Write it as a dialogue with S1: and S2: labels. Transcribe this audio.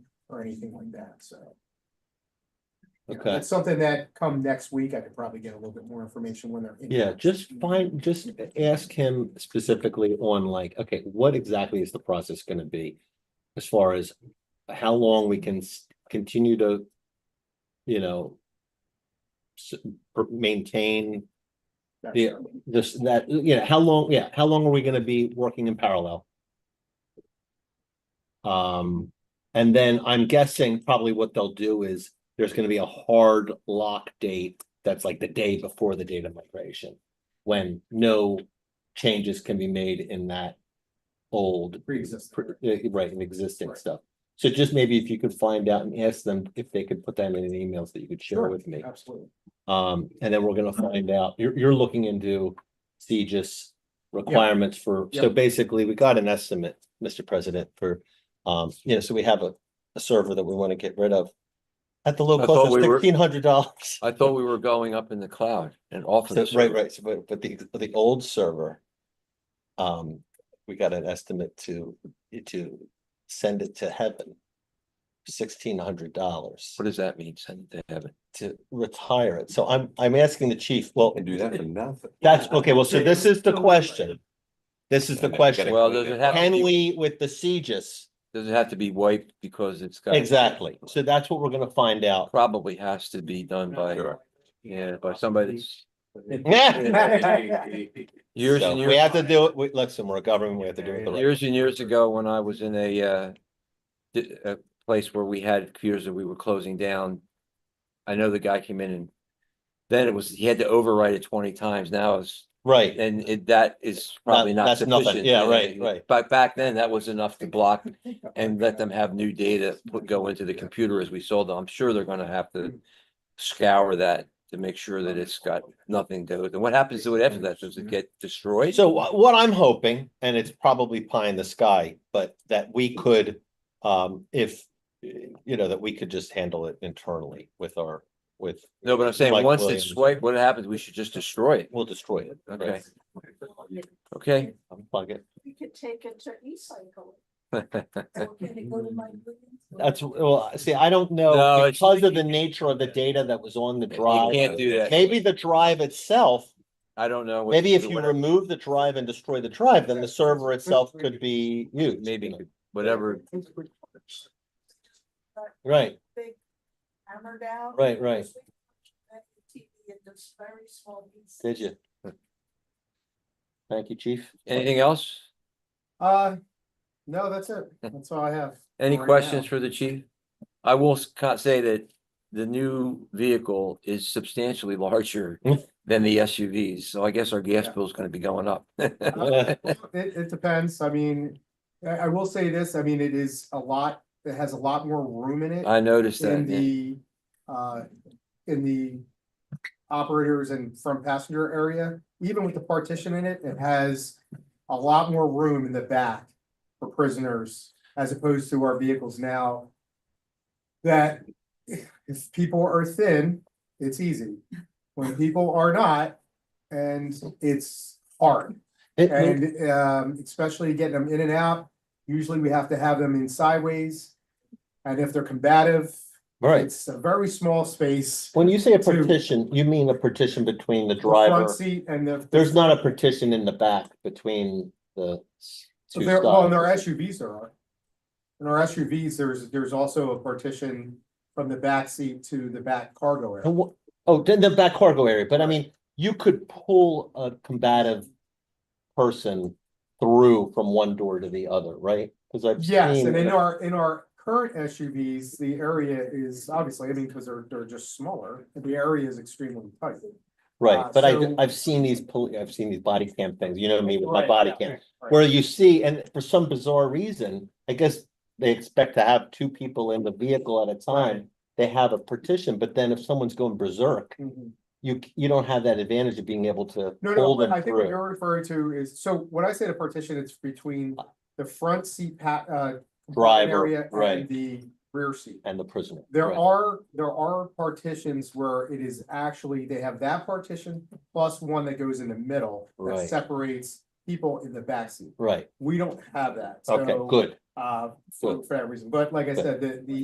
S1: or anything like that, so. you know,
S2: Okay.
S1: That's something that come next week, I could probably get a little bit more information when they're. in.
S2: Yeah, just find, just ask him specifically on like, okay, what exactly is the process gonna be? As far as how long we can s- continue to, you know. s- per- Maintain
S1: That's-
S2: Yeah. this, that, you know, how long, yeah, how long are we gonna be working in parallel? Um, and then I'm guessing probably what they'll do is there's gonna be a hard lock date that's like the day before the data migration. When no changes can be made in that old,
S1: Pre-existing.
S2: pr- eh, right, in existing
S1: Right.
S2: stuff. So just maybe if you could find out and ask them if they could put that in an emails that you could share
S1: Sure,
S2: with me.
S1: Absolutely.
S2: Um, and then we're gonna find out, you're, you're looking into CGIS requirements for, so
S1: Yep.
S2: basically, we got an estimate, Mr. President, for, um, you know, so we have a, a server that we wanna get rid of. At the low
S3: I
S2: cost
S3: thought
S2: of
S3: we were-
S2: sixteen hundred dollars.
S3: I thought we were going up in the cloud and off of the
S2: Right,
S3: server.
S2: right, so but, but the, the old server, um, we got an estimate to, to send it to heaven. Sixteen hundred dollars
S3: What does that mean? Send it to heaven.
S2: to retire it, so I'm, I'm asking the chief, well,
S4: And do that for nothing.
S2: That's, okay, well, so this is the question. This is the
S4: Okay,
S2: question.
S4: gotta-
S3: Well, does it have, to
S2: Can
S3: be-
S2: we with the CGIS?
S3: does it have to be wiped because it's got?
S2: Exactly. So that's what we're gonna find out.
S3: Probably has to be done by, yeah, by somebody that's years
S2: So
S3: and
S2: We
S3: years,
S2: have to do it, we, listen, we're a government, we have to do it the right.
S3: years and years ago when I was in a uh. di- A place where we had computers that we were closing down. I know the guy came in and then it was, he had to overwrite it twenty times. Now it's
S2: Right,
S3: And it, that is probably not
S2: that's nothing.
S3: sufficient.
S2: Yeah, right, right.
S3: But back then, that was enough to block and let them have new data put, go into the computer as we sold them. I'm sure they're gonna have to scour that to make sure that it's got nothing to it. And what happens to it after that? Does it get destroyed?
S2: so wha- what I'm hoping, and it's probably pie in the sky, but that we could, um, if. You know, that we could just handle it internally with our, with,
S3: No, but I'm saying,
S2: Mike
S3: once it's
S2: Williams.
S3: swiped, what happens? We should just destroy it.
S2: we'll destroy it. right?
S3: Okay, okay.
S2: Unplug it.
S5: We could take it to e-cycle.
S2: That's, well, see, I don't
S3: No,
S2: know,
S3: it's-
S2: because of the nature of the data that was on the
S3: You
S2: drive.
S3: can't do that.
S2: Maybe the drive itself,
S3: I don't know. what to
S2: maybe if
S3: do,
S2: you
S3: whatever-
S2: remove the drive and destroy the drive, then the server itself could be used. you
S3: Maybe,
S2: know.
S3: whatever.
S2: Right,
S5: Big hammer down.
S2: Right, right.
S5: TV in this very small piece.
S2: did you? Thank you, chief.
S3: Anything else?
S1: Uh, no, that's it. That's all I have.
S3: Any
S1: for right
S3: questions
S1: now.
S3: for the chief? I will s- ca- say that the new vehicle is substantially larger than the SUVs, so I guess our gas
S1: Yeah.
S3: bill is gonna be going up.
S1: Uh, It, it depends. I mean, I, I will say this, I mean, it is a lot, it has a lot more room in it.
S3: I noticed
S1: In
S3: that, yeah.
S1: the, uh, in the operators and front passenger area, even with the partition in it, it has a lot more room in the back for prisoners as opposed to our vehicles now. That if people are thin, it's easy. When people are not, and it's hard.
S2: It- it-
S1: And um, especially getting them in and out, usually we have to have them in sideways. And if they're combative,
S2: Right,
S1: it's a very small space.
S2: when you say a
S1: To-
S2: partition, you mean a partition between the
S1: the Front
S2: driver,
S1: seat and the.
S2: there's not a partition in the back between the s- two
S1: There, well, in our
S2: sides.
S1: SUVs there are. In our SUVs, there's, there's also a partition from the back seat to the back cargo
S2: And
S1: area.
S2: wha- Oh, then the back cargo area, but I mean, you could pull a combative person through from one door to the other, right? Cause I've
S1: Yes, and in
S2: seen,
S1: our, in our current SUVs, the area is obviously, I mean, because they're, they're just smaller, the area is extremely tight.
S2: right,
S1: uh,
S2: but I,
S1: so-
S2: I've seen these, poli- I've seen these body cam things, you know me with my
S1: Right,
S2: body
S1: yeah,
S2: cam.
S1: right.
S2: Where you see, and for some bizarre reason, I guess they expect to have two people in the vehicle at a time. They have a partition, but then if someone's going berserk,
S1: Mhm.
S2: you, c- you don't have that advantage of being able to
S1: No,
S2: pull
S1: no,
S2: them
S1: I think what
S2: through.
S1: you're referring to is, so when I say the partition, it's between
S2: Uh.
S1: the front seat pa- uh. compartment
S2: Driver,
S1: area and
S2: right.
S1: The rear seat.
S2: And the prisoner.
S1: There
S2: right.
S1: are, there are partitions where it is actually, they have that partition plus one that goes in the middle. That
S2: Right.
S1: separates people in the backseat.
S2: Right,
S1: We don't have that.
S2: okay,
S1: so,
S2: good.
S1: Uh, for,
S2: Good.
S1: for that reason, but like I
S2: Good.
S1: said, the, the